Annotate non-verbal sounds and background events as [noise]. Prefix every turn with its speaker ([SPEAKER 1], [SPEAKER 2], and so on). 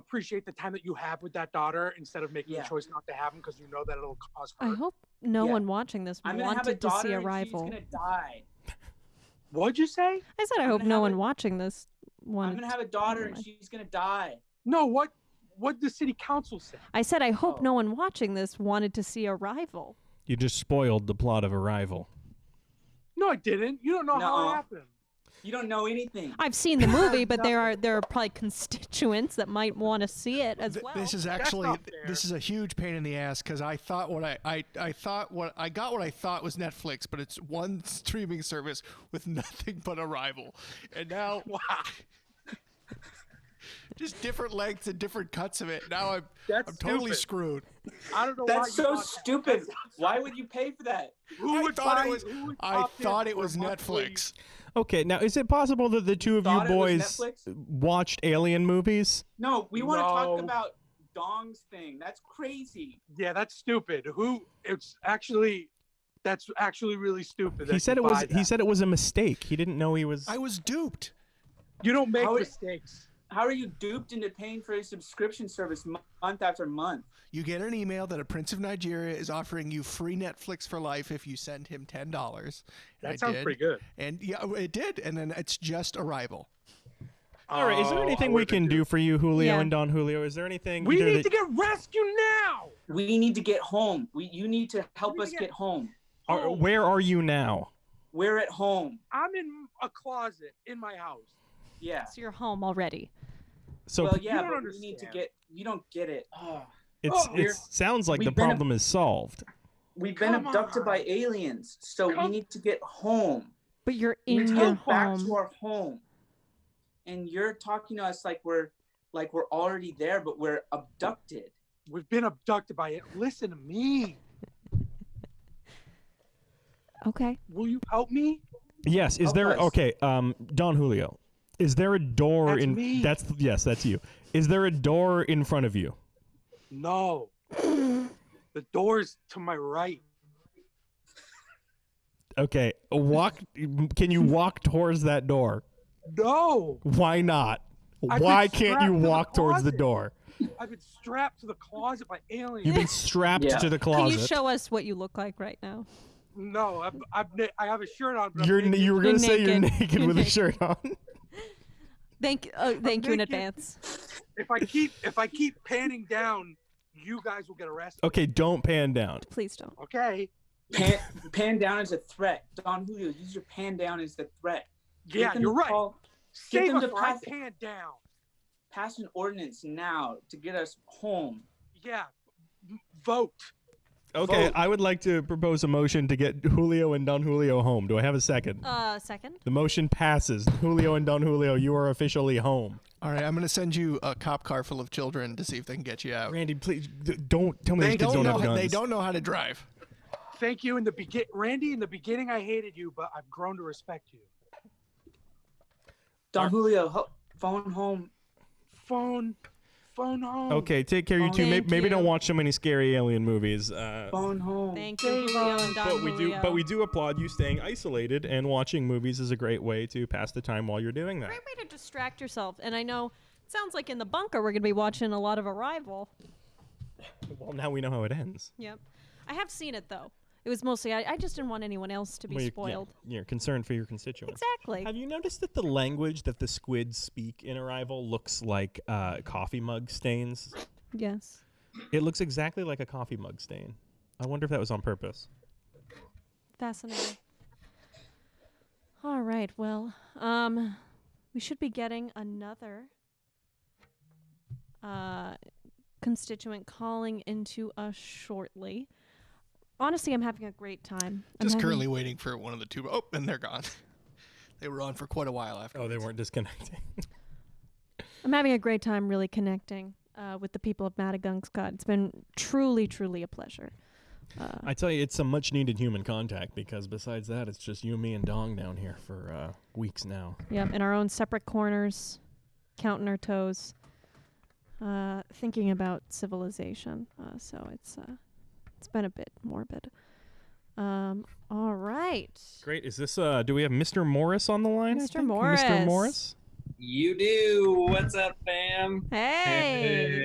[SPEAKER 1] appreciate the time that you have with that daughter instead of making
[SPEAKER 2] Yeah.
[SPEAKER 1] a choice not to have him because you know that it'll cause
[SPEAKER 3] I
[SPEAKER 1] her.
[SPEAKER 3] hope no
[SPEAKER 2] Yeah.
[SPEAKER 3] one watching this
[SPEAKER 2] I'm gonna have a
[SPEAKER 3] wanted to
[SPEAKER 2] daughter
[SPEAKER 3] see a
[SPEAKER 2] and
[SPEAKER 3] rival.
[SPEAKER 2] she's gonna die.
[SPEAKER 1] What'd you say?
[SPEAKER 3] I said I
[SPEAKER 2] I'm
[SPEAKER 3] hope
[SPEAKER 2] gonna
[SPEAKER 3] no
[SPEAKER 2] have
[SPEAKER 3] one
[SPEAKER 2] a-
[SPEAKER 3] watching this
[SPEAKER 2] I'm
[SPEAKER 3] one.
[SPEAKER 2] gonna have a daughter and
[SPEAKER 3] mind.
[SPEAKER 2] she's gonna die.
[SPEAKER 1] No, what? What the city council say?
[SPEAKER 3] I said I hope
[SPEAKER 2] Oh.
[SPEAKER 3] no one watching this wanted to see a rival.
[SPEAKER 4] You just spoiled the plot of Arrival.
[SPEAKER 1] No, I didn't. You don't know how
[SPEAKER 2] Nuh-uh.
[SPEAKER 1] it happened.
[SPEAKER 2] You don't know anything.
[SPEAKER 3] I've seen the movie, but there are there are probably constituents that might want to see it as
[SPEAKER 5] Th-
[SPEAKER 3] well.
[SPEAKER 5] This is actually
[SPEAKER 1] not
[SPEAKER 5] th-
[SPEAKER 1] fair.
[SPEAKER 5] this is a huge pain in the ass because I thought what I, I I thought what I got what I thought was Netflix, but it's one [laughs] streaming service with nothing but Arrival, and now
[SPEAKER 1] Wow,
[SPEAKER 5] just different lengths and different cuts of it. Now I'm
[SPEAKER 1] [laughs] That's
[SPEAKER 5] I'm totally
[SPEAKER 1] stupid.
[SPEAKER 5] screwed.
[SPEAKER 1] I don't know why.
[SPEAKER 2] That's
[SPEAKER 1] you
[SPEAKER 2] so
[SPEAKER 1] bought that.
[SPEAKER 2] stupid. Why would you pay for that?
[SPEAKER 1] Who
[SPEAKER 5] I
[SPEAKER 1] would
[SPEAKER 5] thought
[SPEAKER 1] buy-
[SPEAKER 5] it was
[SPEAKER 1] who would
[SPEAKER 5] I
[SPEAKER 1] cop in
[SPEAKER 5] thought it
[SPEAKER 1] for
[SPEAKER 5] was
[SPEAKER 1] monthly-
[SPEAKER 5] Netflix.
[SPEAKER 4] Okay, now is it possible that the two of
[SPEAKER 2] Thought
[SPEAKER 4] you
[SPEAKER 2] it was
[SPEAKER 4] boys
[SPEAKER 2] Netflix?
[SPEAKER 4] watched Alien movies?
[SPEAKER 2] No, we want to talk
[SPEAKER 1] No.
[SPEAKER 2] about Dong's thing. That's crazy.
[SPEAKER 1] Yeah, that's stupid. Who? It's actually. That's actually really stupid.
[SPEAKER 4] He
[SPEAKER 1] that
[SPEAKER 4] said
[SPEAKER 1] you
[SPEAKER 4] it was.
[SPEAKER 1] buy
[SPEAKER 4] He
[SPEAKER 1] that.
[SPEAKER 4] said it was a mistake. He didn't know he was.
[SPEAKER 5] I was duped.
[SPEAKER 1] you don't make
[SPEAKER 2] How is-
[SPEAKER 1] mistakes.
[SPEAKER 2] How are you duped into paying for a subscription service mo- month after month?
[SPEAKER 5] You get an email that a prince of Nigeria is offering you free Netflix for life if you send him ten dollars.
[SPEAKER 1] That sounds pretty good.
[SPEAKER 5] And yeah, it did. And then it's just Arrival.
[SPEAKER 4] All right. Is
[SPEAKER 1] Oh,
[SPEAKER 4] there
[SPEAKER 1] I
[SPEAKER 4] anything we
[SPEAKER 1] would've
[SPEAKER 4] can
[SPEAKER 1] been
[SPEAKER 4] do for you, Julio
[SPEAKER 3] Yeah.
[SPEAKER 4] and Don Julio? Is there anything?
[SPEAKER 1] We
[SPEAKER 4] either
[SPEAKER 1] need
[SPEAKER 4] that-
[SPEAKER 1] to get rescued now.
[SPEAKER 2] We need to get home. We, you need to help
[SPEAKER 1] We need
[SPEAKER 2] us
[SPEAKER 1] to
[SPEAKER 2] get
[SPEAKER 1] get-
[SPEAKER 2] home.
[SPEAKER 4] are- where are you now?
[SPEAKER 2] We're at home.
[SPEAKER 1] I'm in a closet in my house.
[SPEAKER 2] Yeah.
[SPEAKER 3] It's your home already.
[SPEAKER 4] So
[SPEAKER 2] well, yeah,
[SPEAKER 1] don't
[SPEAKER 2] but we need to
[SPEAKER 1] understand.
[SPEAKER 2] get. You don't get it. Ugh.
[SPEAKER 4] it's
[SPEAKER 2] oh,
[SPEAKER 4] it
[SPEAKER 2] we're-
[SPEAKER 4] sounds like
[SPEAKER 2] we've
[SPEAKER 4] the
[SPEAKER 2] been a-
[SPEAKER 4] problem is solved.
[SPEAKER 2] We've been
[SPEAKER 1] Come
[SPEAKER 2] abducted
[SPEAKER 1] on.
[SPEAKER 2] by aliens, so we
[SPEAKER 1] Come-
[SPEAKER 2] need to get home.
[SPEAKER 3] But you're
[SPEAKER 2] We need
[SPEAKER 3] in
[SPEAKER 2] to
[SPEAKER 3] your
[SPEAKER 2] get back to
[SPEAKER 3] home.
[SPEAKER 2] our home. And you're talking to us like we're like we're already there, but we're abducted.
[SPEAKER 1] We've been abducted by it. Listen to me.
[SPEAKER 3] Okay.
[SPEAKER 1] Will you help me?
[SPEAKER 4] Yes. Is
[SPEAKER 2] Help
[SPEAKER 4] there
[SPEAKER 2] us.
[SPEAKER 4] okay? Um, Don Julio, is there a door
[SPEAKER 1] That's
[SPEAKER 4] in?
[SPEAKER 1] me.
[SPEAKER 4] That's yes. That's you. Is there a door in front of you?
[SPEAKER 2] [laughs]
[SPEAKER 1] No. the door's to my right.
[SPEAKER 4] Okay. Walk. can you walk towards that door?
[SPEAKER 1] No.
[SPEAKER 4] Why not?
[SPEAKER 1] I've been
[SPEAKER 4] Why can't
[SPEAKER 1] strapped
[SPEAKER 4] you
[SPEAKER 1] to the
[SPEAKER 4] walk towards the
[SPEAKER 1] closet.
[SPEAKER 4] door?
[SPEAKER 1] I've been strapped to the closet by
[SPEAKER 4] You've
[SPEAKER 1] aliens.
[SPEAKER 4] been strapped
[SPEAKER 2] Yeah.
[SPEAKER 4] to the
[SPEAKER 3] Can
[SPEAKER 4] closet.
[SPEAKER 3] you show us what you look like right now?
[SPEAKER 1] no, I'm, I'm, na- I have a shirt on. But
[SPEAKER 4] You're
[SPEAKER 1] I'm
[SPEAKER 4] n-
[SPEAKER 1] naked.
[SPEAKER 4] you were gonna
[SPEAKER 3] You're
[SPEAKER 4] say you're
[SPEAKER 3] naked.
[SPEAKER 4] naked
[SPEAKER 3] You're
[SPEAKER 4] with a
[SPEAKER 3] naked.
[SPEAKER 4] shirt on.
[SPEAKER 3] Thank oh, thank you in
[SPEAKER 1] naked.
[SPEAKER 3] advance.
[SPEAKER 1] If I keep if I keep panning down, you guys will get arrested.
[SPEAKER 4] Okay, don't pan down.
[SPEAKER 3] Please don't.
[SPEAKER 1] Okay.
[SPEAKER 2] Pan, pan down is a threat. Don Julio, use your pan down as the threat. Get
[SPEAKER 1] Yeah,
[SPEAKER 2] them
[SPEAKER 1] you're
[SPEAKER 2] to
[SPEAKER 1] right.
[SPEAKER 2] call- get
[SPEAKER 1] Save
[SPEAKER 2] them
[SPEAKER 1] us
[SPEAKER 2] to
[SPEAKER 1] or I
[SPEAKER 2] pass,
[SPEAKER 1] pan down.
[SPEAKER 2] pass an ordinance now to get us home.
[SPEAKER 1] Yeah. M- Vote.
[SPEAKER 4] Okay,
[SPEAKER 2] Vote.
[SPEAKER 4] I would like to propose a motion to get Julio and Don Julio home. Do I have a second?
[SPEAKER 3] Uh, second.
[SPEAKER 4] The motion passes. Julio and Don Julio, you are officially home.
[SPEAKER 5] All right, I'm going to send you a cop car full of children to see if they can get you out.
[SPEAKER 4] Randy, please d- don't tell me
[SPEAKER 5] They
[SPEAKER 4] these kids don't
[SPEAKER 5] don't know.
[SPEAKER 4] have guns.
[SPEAKER 5] They don't know how to drive.
[SPEAKER 1] Thank you in the begin Randy, in the beginning I hated you, but I've grown to respect you.
[SPEAKER 2] Don Julio, ho- phone home.
[SPEAKER 1] Phone phone home.
[SPEAKER 4] Okay, take care, you
[SPEAKER 2] Oh,
[SPEAKER 4] two. Maybe,
[SPEAKER 3] thank
[SPEAKER 4] maybe don't
[SPEAKER 3] you.
[SPEAKER 4] watch so many scary alien movies. Uh,
[SPEAKER 2] Phone home.
[SPEAKER 3] Thank you, Julio and Don
[SPEAKER 4] but we do,
[SPEAKER 3] Julio.
[SPEAKER 4] but we do applaud you staying isolated and watching movies is a great way to pass the time while you're doing that.
[SPEAKER 3] Great way to distract yourself. And I know it sounds like in the bunker we're gonna be watching a lot of Arrival.
[SPEAKER 4] Well, now we know how it ends.
[SPEAKER 3] Yep. I have seen it though. It was mostly I, I just didn't want anyone else to be
[SPEAKER 4] Well, you're- yeah,
[SPEAKER 3] spoiled.
[SPEAKER 4] you're concerned for your constituents.
[SPEAKER 3] Exactly.
[SPEAKER 4] Have you noticed that the language that the squids speak in Arrival looks like uh, coffee mug stains?
[SPEAKER 3] Yes.
[SPEAKER 4] It looks exactly like a coffee mug stain. I wonder if that was on purpose.
[SPEAKER 3] Fascinating. All right. Well, um, we should be getting another uh, constituent calling into us shortly. Honestly, I'm having a great time. I'm
[SPEAKER 5] Just
[SPEAKER 3] having-
[SPEAKER 5] currently waiting for one of the two. Oh, and they're gone. [laughs] They were on for quite a while after.
[SPEAKER 4] Oh, they
[SPEAKER 3] [laughs]
[SPEAKER 4] weren't disconnecting.
[SPEAKER 3] Uh. I'm having a great time really connecting uh, with the people of Madagungscut. It's been truly, truly a pleasure.
[SPEAKER 4] I tell you, it's some much needed human contact because besides that, it's just you, me, and Dong down here for uh, weeks now.
[SPEAKER 3] Yep, in our own separate corners, counting our toes, uh, thinking about civilization. Uh, so it's uh, it's been a bit morbid. Um, all right,
[SPEAKER 4] Great. Is this, uh, do we have Mr. Morris on the line? I
[SPEAKER 3] Mr.
[SPEAKER 4] think?
[SPEAKER 3] Morris.
[SPEAKER 4] Mr. Morris?
[SPEAKER 6] You do. What's up, fam?
[SPEAKER 3] hey,